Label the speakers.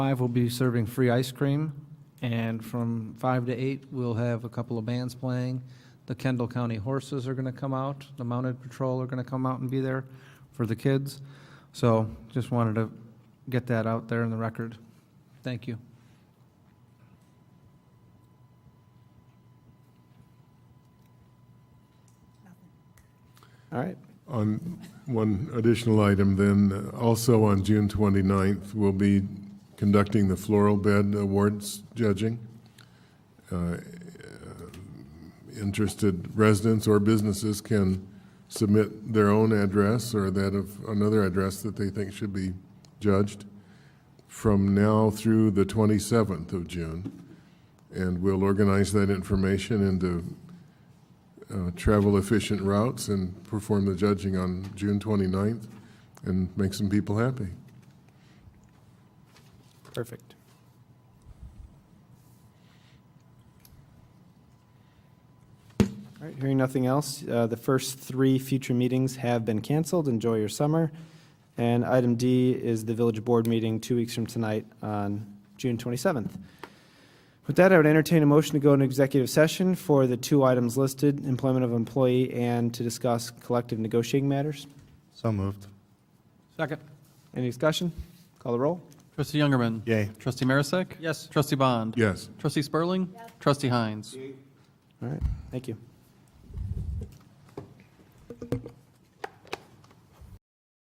Speaker 1: Five will be serving free ice cream, and from five to eight, we'll have a couple of bands playing. The Kendall County Horses are going to come out, the Mounted Patrol are going to come out and be there for the kids. So just wanted to get that out there in the record. Thank you.
Speaker 2: All right.
Speaker 3: On one additional item then, also on June 29th, we'll be conducting the Floral Bed Awards judging. Uh, Interested residents or businesses can submit their own address or that of another address that they think should be judged from now through the 27th of June. And we'll organize that information into uh, travel efficient routes and perform the judging on June 29th and make some people happy.
Speaker 2: Perfect. All right, hearing nothing else, uh, the first three future meetings have been canceled. Enjoy your summer. And item D is the village board meeting two weeks from tonight on June 27th. With that, I would entertain a motion to go into executive session for the two items listed, employment of employee and to discuss collective negotiating matters.
Speaker 4: So moved.
Speaker 1: Second.
Speaker 2: Any discussion? Call the roll.
Speaker 5: Trustee Youngerman.
Speaker 4: Yay.
Speaker 5: Trustee Marisak.
Speaker 1: Yes.
Speaker 5: Trustee Bond.
Speaker 3: Yes.
Speaker 5: Trustee Spurling. Trustee Hines.
Speaker 2: All right, thank you.